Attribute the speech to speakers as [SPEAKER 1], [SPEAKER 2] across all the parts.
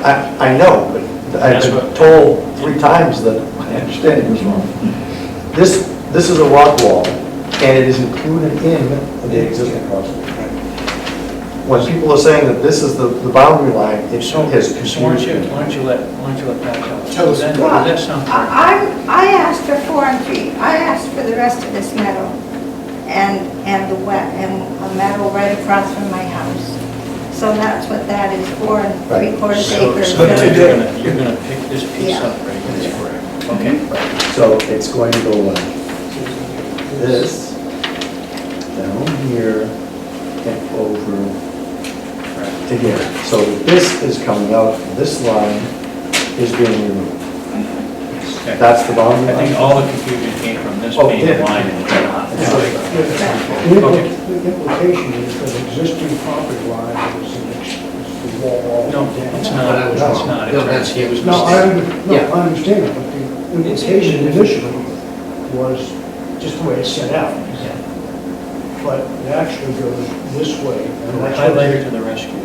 [SPEAKER 1] I, I know, but I've
[SPEAKER 2] That's
[SPEAKER 1] been
[SPEAKER 2] what-
[SPEAKER 1] told three times that my understanding was wrong. This, this is a rock wall, and it is included in the existing crosswalk. When people are saying that this is the, the boundary line, it
[SPEAKER 2] So,
[SPEAKER 1] has
[SPEAKER 2] so why don't you,
[SPEAKER 1] confusion.
[SPEAKER 2] why don't you let, why don't you let Pat tell us?
[SPEAKER 3] Tell us.
[SPEAKER 2] Then-
[SPEAKER 4] Well,
[SPEAKER 2] That's something.
[SPEAKER 4] I, I I asked for four and three, I asked for the rest of this meadow and, and the wet, and a meadow right across from my house. So that's what that is, four and three quarters
[SPEAKER 2] So,
[SPEAKER 4] acres.
[SPEAKER 2] so now
[SPEAKER 4] really.
[SPEAKER 2] you're gonna, you're gonna pick this piece
[SPEAKER 4] Yeah.
[SPEAKER 2] up right here, correct? Okay.
[SPEAKER 1] So it's going to go like this, down here, and over to here. So this is coming out, this line is being removed.
[SPEAKER 2] Okay.
[SPEAKER 1] That's the boundary
[SPEAKER 2] I think
[SPEAKER 1] line.
[SPEAKER 2] all the confusion came from this
[SPEAKER 1] Oh,
[SPEAKER 2] being
[SPEAKER 1] yeah.
[SPEAKER 2] a line and it's not.
[SPEAKER 1] Yeah.
[SPEAKER 2] Like,
[SPEAKER 3] The impl- the implication is that existing property line is an ex- is the wall all
[SPEAKER 2] No,
[SPEAKER 3] down.
[SPEAKER 2] it's not, it's not.
[SPEAKER 5] No, that's him.
[SPEAKER 2] It was
[SPEAKER 3] No, I,
[SPEAKER 2] mistake.
[SPEAKER 3] under- no, I understand, that, but the implication initially was just the way it's set out. But it actually goes this way. and that's what-
[SPEAKER 2] Highlighter to the rescue.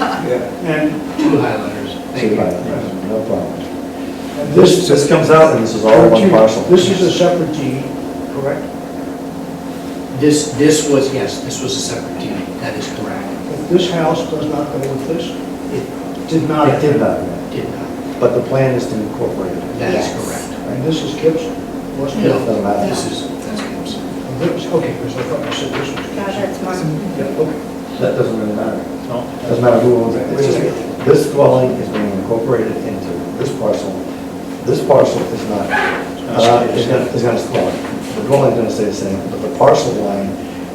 [SPEAKER 3] And
[SPEAKER 5] Two highlighters, thank
[SPEAKER 1] Two
[SPEAKER 5] you.
[SPEAKER 1] highlights, No problem.
[SPEAKER 3] and
[SPEAKER 1] This,
[SPEAKER 3] this.
[SPEAKER 1] this comes out and this is all one parcel.
[SPEAKER 3] This is a separate deed, correct?
[SPEAKER 5] This, this was, yes, this was a separate deed, that is correct.
[SPEAKER 3] If this house does not go with this, it did not.
[SPEAKER 1] It did not,
[SPEAKER 5] Did not,
[SPEAKER 1] but the plan is to incorporate it.
[SPEAKER 5] that is
[SPEAKER 4] Yes.
[SPEAKER 5] correct.
[SPEAKER 3] And this is Gibbs? What's
[SPEAKER 1] No.
[SPEAKER 3] Gibbs? Oh,
[SPEAKER 1] Doesn't matter.
[SPEAKER 5] This is, that's Gibbs.
[SPEAKER 3] Gibbs, okay, because I thought you said this was
[SPEAKER 4] No, that's
[SPEAKER 3] Gibbs.
[SPEAKER 4] mine.
[SPEAKER 3] Yeah, okay.
[SPEAKER 1] That doesn't really matter.
[SPEAKER 2] No,
[SPEAKER 1] Doesn't matter who owns it, it's just, this dwelling is being incorporated into this parcel. This parcel is not, uh, is gonna, is gonna dwell. The dwelling's gonna stay the same, but the parcel line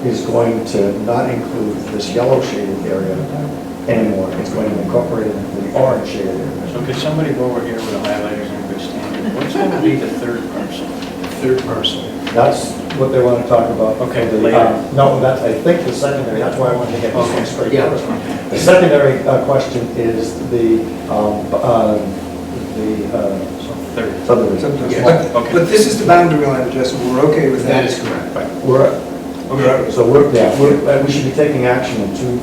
[SPEAKER 1] is going to not include this yellow shaded area anymore. It's going to incorporate it into the orange shaded area.
[SPEAKER 2] So could somebody go over here with a highlighter and everybody stand it? What's gonna be the third parcel?
[SPEAKER 5] Third parcel.
[SPEAKER 1] That's what they wanna talk about.
[SPEAKER 2] Okay,
[SPEAKER 1] Uh,
[SPEAKER 2] later.
[SPEAKER 1] No, that's, I think the secondary, that's why I wanted to get this one straight
[SPEAKER 5] Yeah.
[SPEAKER 1] first. The secondary uh, question is the, um, b- uh, the uh,
[SPEAKER 2] So third.
[SPEAKER 1] subdivision.
[SPEAKER 5] Yeah.
[SPEAKER 6] But, but this is the boundary line, Justin, we're okay with
[SPEAKER 5] That
[SPEAKER 6] that?
[SPEAKER 5] is correct.
[SPEAKER 1] We're,
[SPEAKER 6] Okay.
[SPEAKER 1] so we're, yeah, we're, uh, we should be taking action in two,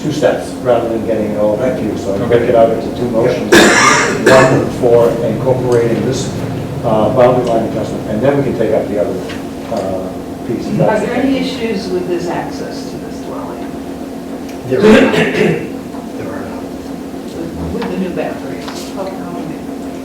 [SPEAKER 1] two steps rather than getting it all confused. So I'm gonna get out into two motions. One for incorporating this uh, boundary line adjustment, and then we can take up the other uh, piece. if
[SPEAKER 7] Are
[SPEAKER 1] that's
[SPEAKER 7] there
[SPEAKER 1] okay.
[SPEAKER 7] any issues with this access to this dwelling,
[SPEAKER 5] There are none. There are none.
[SPEAKER 7] with with the new boundaries? Okay.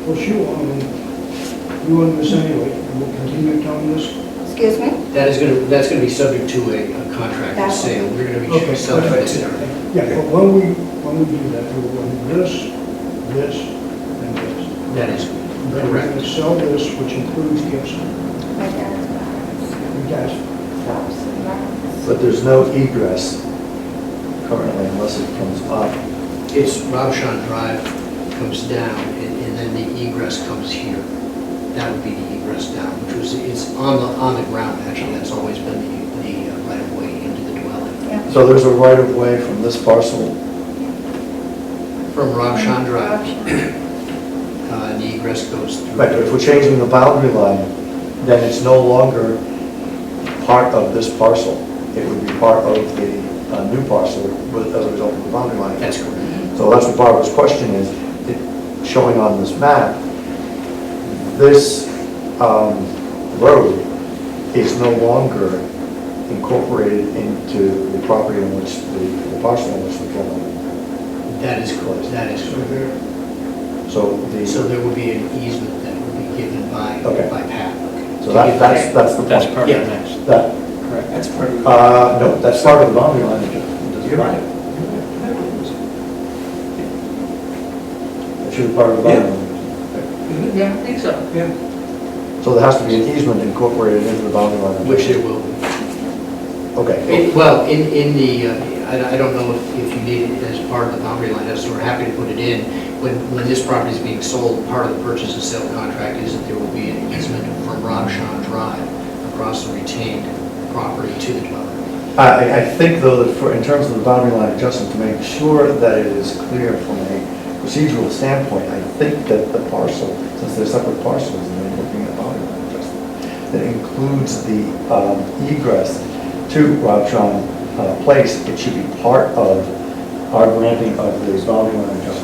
[SPEAKER 3] Well, she, um, you own this anyway, and we'll continue to own this.
[SPEAKER 4] Excuse me?
[SPEAKER 5] That is gonna, that's gonna be subject to a a contract of
[SPEAKER 4] That's-
[SPEAKER 5] sale, we're gonna
[SPEAKER 3] Okay,
[SPEAKER 5] be selling this area.
[SPEAKER 3] Yeah, but when we, when we do that, we will own this, this, and this.
[SPEAKER 5] That is
[SPEAKER 3] Then we're going to
[SPEAKER 5] correct.
[SPEAKER 3] sell this, which includes Gibbs.
[SPEAKER 4] My dad's barns,
[SPEAKER 3] You guys,
[SPEAKER 4] house and barns.
[SPEAKER 1] But there's no egress currently unless it comes up.
[SPEAKER 5] It's Robshan Drive comes down, and, and then the egress comes here. That would be the egress down, which was, it's on the, on the ground, actually, that's always been the, the uh, right of way into the dwelling.
[SPEAKER 4] Yeah.
[SPEAKER 1] So there's a right of way from this parcel.
[SPEAKER 5] From Robshan Drive,
[SPEAKER 4] Option.
[SPEAKER 5] uh, the egress goes through.
[SPEAKER 1] Right, but if we're changing the boundary line, then it's no longer part of this parcel. It would be part of the uh, new parcel with- as a result of the boundary line.
[SPEAKER 5] That's correct.
[SPEAKER 1] So that's what Barbara's question is, it- showing on this map, this um, road is no longer incorporated into the property in which the, the parcel in which the dwelling.
[SPEAKER 5] That is correct, that is
[SPEAKER 3] so
[SPEAKER 5] correct.
[SPEAKER 3] there,
[SPEAKER 1] So the,
[SPEAKER 5] So
[SPEAKER 1] so
[SPEAKER 5] there would be an easement that would be given by,
[SPEAKER 1] Okay.
[SPEAKER 5] by Pat.
[SPEAKER 1] that, that's, that's the point.
[SPEAKER 2] That's part of
[SPEAKER 5] Yeah.
[SPEAKER 2] the next.
[SPEAKER 1] That,
[SPEAKER 2] Correct.
[SPEAKER 6] That's part of the.
[SPEAKER 1] Uh, no, that's part of the boundary line. adjustment.
[SPEAKER 6] You're right.
[SPEAKER 1] That should be part of the boundary line. adjustment.
[SPEAKER 7] Yeah, I think so.
[SPEAKER 6] Yeah,
[SPEAKER 1] So there has to be an easement incorporated into the boundary line. adjustment.
[SPEAKER 5] Which there will be.
[SPEAKER 1] Okay,
[SPEAKER 5] It- Well, in, in the, uh, I I don't know if if you need it as part of the boundary line, as we're happy to put it in. When, when this property is being sold, part of the purchase and sale contract is that there will be an easement from Robshan Drive across the retained property to the dwelling.
[SPEAKER 1] I, I think though that for, in terms of the boundary line adjustment, to make sure that it is clear from a procedural standpoint, I think that the parcel, since they're separate parcels and they're looking at boundary line adjustment, that includes the um, egress to Robson uh, Place, it should be part of our granting of the boundary line adjustment.